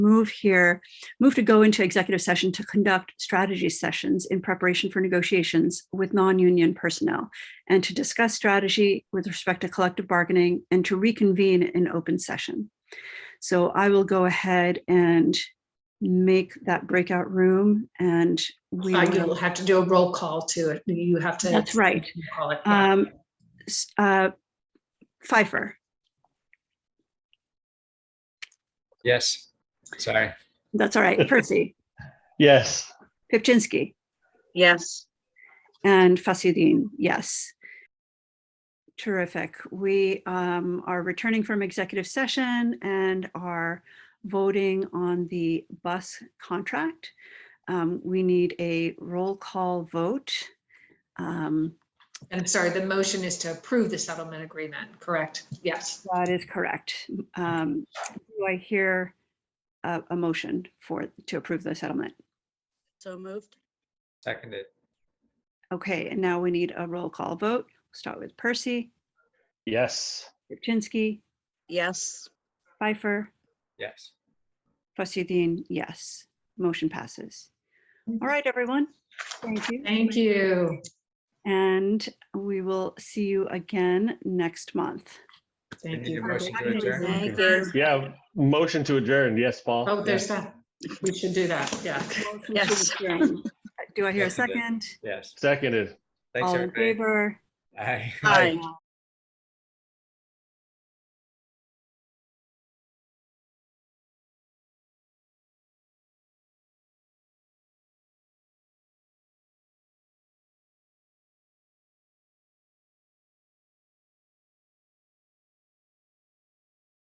move here, move to go into executive session to conduct strategy sessions in preparation for negotiations with non-union personnel and to discuss strategy with respect to collective bargaining and to reconvene in open session. So I will go ahead and make that breakout room and we Uh, will. You'll have to do a roll call to it. You have to. That's right. Call it. yeah. Um, s- uh, Pfeiffer, Yes, sorry. that's all right. Percy, Yes. Pipchinsky, Yes. and Fasidin, yes. Terrific. We um, are returning from executive session and are voting on the bus contract. Um, We need a roll call vote. Um, And I'm sorry, the motion is to approve the settlement agreement, correct? Yes. That is correct. Um, Do I hear a a motion for, to approve the settlement? So moved? Seconded. Okay, and now we need a roll call vote. Start with Percy, Yes. Ripchinsky, Yes. Pfeiffer, Yes. Trustee Dean, yes. Motion passes. Mm-hmm. All right, everyone. Thank you. Thank you. And we will see you again next month. Thank need a you. motion to adjourn? Thank you. Yeah. Motion to adjourn. Yes, Paul. Oh, there's that. We should do that. Yeah. Yes. Do I hear a Seconded. second? Yes. Seconded. Thanks, All in everybody. favor? Aye. Hi.